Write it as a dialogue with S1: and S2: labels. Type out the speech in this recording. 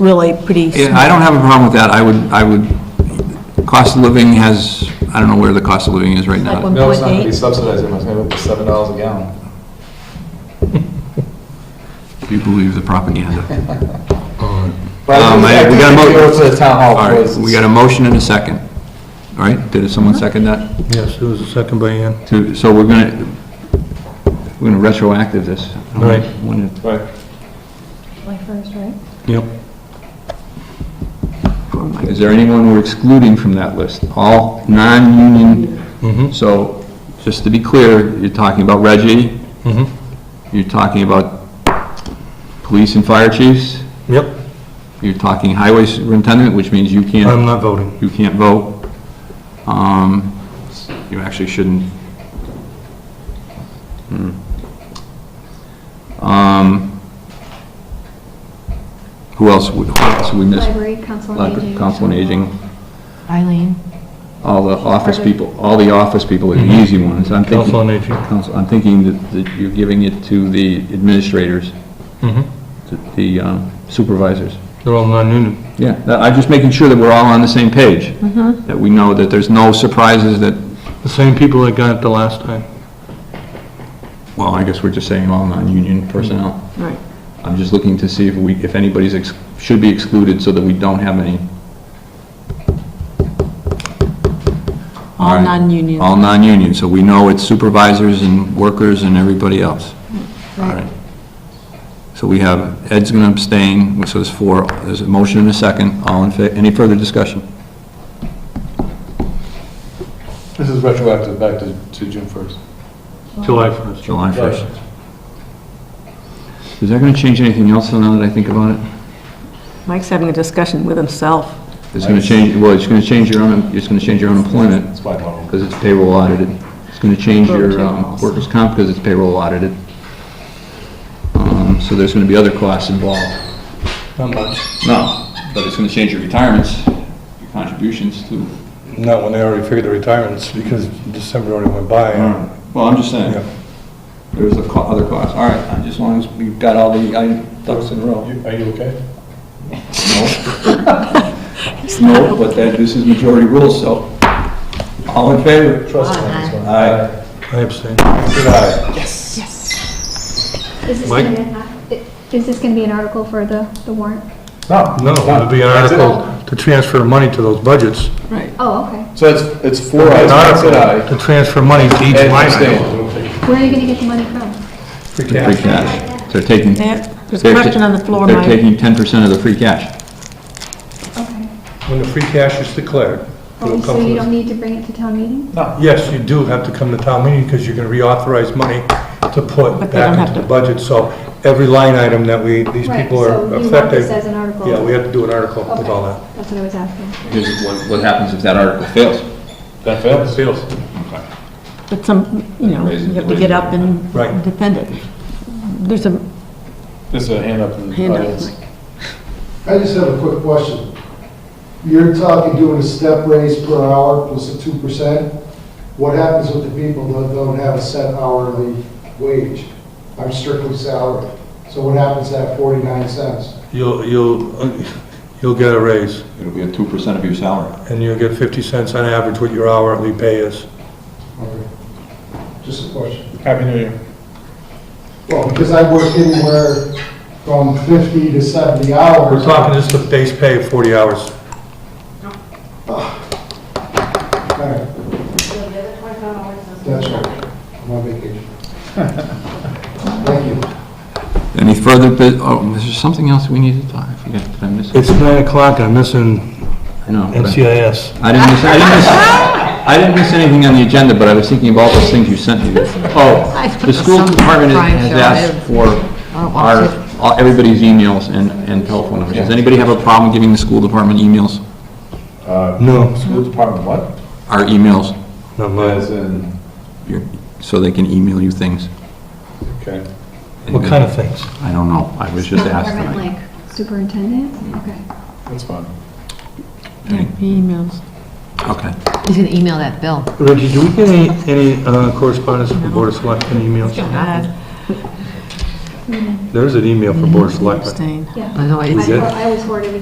S1: really pretty
S2: Yeah, I
S1: small.
S2: don't have a problem with that. I would, I would, cost of living has, I don't know where the cost of living is right
S1: Like
S2: now.
S1: one-
S3: No, it's not gonna
S1: 1.8.
S3: be subsidized, it's gonna be seven dollars a
S2: Oh,
S3: gallon.
S2: If you believe the propaganda.
S4: Uh,
S3: But I
S2: Um,
S3: think-
S2: I-
S3: I
S2: we
S3: think
S2: got a
S3: if you
S2: mo-
S3: Go to the town hall,
S2: All right,
S3: boys.
S2: we got a motion and a second. All right, did someone second that?
S4: Yes, it was a second by Ann.
S2: To- So we're gonna, we're gonna retroactive this.
S4: Right.
S2: When it-
S3: Right.
S1: July 1st, right?
S4: Yep.
S2: Is there anyone we're excluding from that list? All non-union,
S4: Mm-hmm,
S2: so just to be clear, you're talking about Reggie,
S4: mm-hmm.
S2: you're talking about police and fire chiefs,
S4: Yep,
S2: you're talking highway superintendent, which means you can't.
S4: I'm not voting.
S2: you can't vote. Um, You actually shouldn't. Hmm. Um, Who else, would- who else would we miss?
S5: Library, council on
S2: Library,
S5: aging.
S2: Council on Aging,
S6: Eileen.
S2: all the office people, all the office people are the easy ones. I'm thinking-
S4: Mm-hmm. Council on Aging.
S2: Council- I'm thinking that- that you're giving it to the administrators,
S4: Mm-hmm.
S2: to the um, supervisors.
S4: They're all non-union.
S2: Yeah, that- I'm just making sure that we're all on the same page. That we know that there's no surprises that
S4: The same people that got it the last time.
S2: Well, I guess we're just saying all non-union personnel.
S1: Right.
S2: I'm just looking to see if we, if anybody's, ex- should be excluded so that we don't have any.
S1: All
S2: right.
S1: non-union.
S2: All non-union, so we know it's supervisors and workers and everybody else. All right. So we have, Ed's going to abstain, so there's four, there's a motion and a second, all in fa, any further discussion?
S3: This is retroactive back to, to June first.
S5: Oh.
S4: July 1st.
S2: July 1st. Is that going to change anything else now that I think about it?
S1: Mike's having a discussion with himself.
S2: It's going to change, well, it's going to change your, un- it's going to change your unemployment.
S3: That's my model.
S2: because it's payroll audited. It's going to change your um, workers' comp because it's payroll audited. Um, So there's going to be other costs involved.
S4: Not much.
S2: No, but it's going to change your retirements, your contributions too.
S7: Not when they already figured the retirements, because December already went by.
S2: Well, I'm just saying,
S7: Yeah.
S2: there's a co- other cost. All right, I- as long as we've got all the i- ducks in a row.
S3: You- Are you okay?
S2: No, No, but that, this is majority rule, so all in favor?
S3: Trust me on this one.
S2: Aye.
S4: I abstain.
S7: Good eye.
S5: Is this
S4: Mike?
S5: gonna be an- Is this going to be an article for the, the warrant?
S3: No.
S4: No,
S3: it's not.
S4: it'll be an
S3: That's it.
S4: article to transfer money to those budgets.
S1: Right.
S5: Oh, okay.
S3: So it's, it's four ayes,
S4: An
S3: one
S4: article
S3: said aye.
S4: To transfer money to each
S3: Ed
S4: line item.
S3: abstained.
S5: Where are you going to get the money from?
S2: Free cash. They're taking.
S1: There's a
S2: they're ta-
S1: question on the floor,
S2: They're
S1: Mike.
S2: taking 10% of the free cash.
S5: Okay.
S4: When the free cash is declared, it'll
S5: Oh, So
S4: come
S5: you
S4: from
S5: don't need to bring it to town meeting?
S4: Yes, you do have to come to town meeting because you're going to reauthorize money to put
S1: But they don't have
S4: back into
S1: to.
S4: the budget. So every line item that we, these
S5: Right,
S4: people
S5: so you
S4: are
S5: want
S4: affected.
S5: this as an article?
S4: Yeah, we have to do an article with
S5: Okay.
S4: all that.
S5: That's what I was asking.
S2: Here's what, what happens if that article fails.
S3: That fails.
S1: But some, you know, you have to get up and
S4: Right.
S1: defend it. There's a
S3: There's a hand up in the
S1: hand up,
S3: audience.
S1: Mike.
S8: I just have a quick question. You're talking doing a step raise per hour plus a two percent. What happens with the people that don't have a set hourly wage? I'm strictly salary. So what happens at forty-nine cents?
S4: You'll, you'll, you'll get a raise,
S2: It'll be a two percent of your salary.
S4: and you'll get 50 cents on average what your hourly pay is.
S8: Okay. Just a question.
S3: Happy New Year.
S8: Well, because I work anywhere from fifty to seventy hours.
S4: We're talking just the base pay of 40 hours.
S8: Okay. That's right. I'm on vacation. Thank you.
S2: Any further, bu- oh, is there something else we need to talk? I forget, did I miss it?
S4: It's 9 o'clock, I'm missing
S2: I know. but I-
S4: NCIS.
S2: I didn't miss, I didn't miss, I didn't miss anything on the agenda, but I was thinking of all those things you sent me. Oh, the school department has asked for our, all- everybody's emails and, and telephone numbers. Does anybody have a problem giving the school department emails?
S4: No,
S3: Uh, School department, what?
S2: Our emails,
S4: not mine.
S3: As in,
S2: your- so they can email you things?
S3: okay.
S4: What kind of things?
S2: I don't know, I was just asked
S5: Government,
S2: tonight.
S5: Like superintendent? Okay.
S3: That's fine.
S1: yeah, emails.
S2: Okay.
S6: He's going to email that bill.
S4: Reggie, do we get any, any uh, correspondence from Board of Selectmen emails?
S1: Bad.
S9: There's an email from Board of Selectmen.
S4: Abstain.
S5: Yeah.
S4: Although
S5: I
S4: it's-
S5: I was worried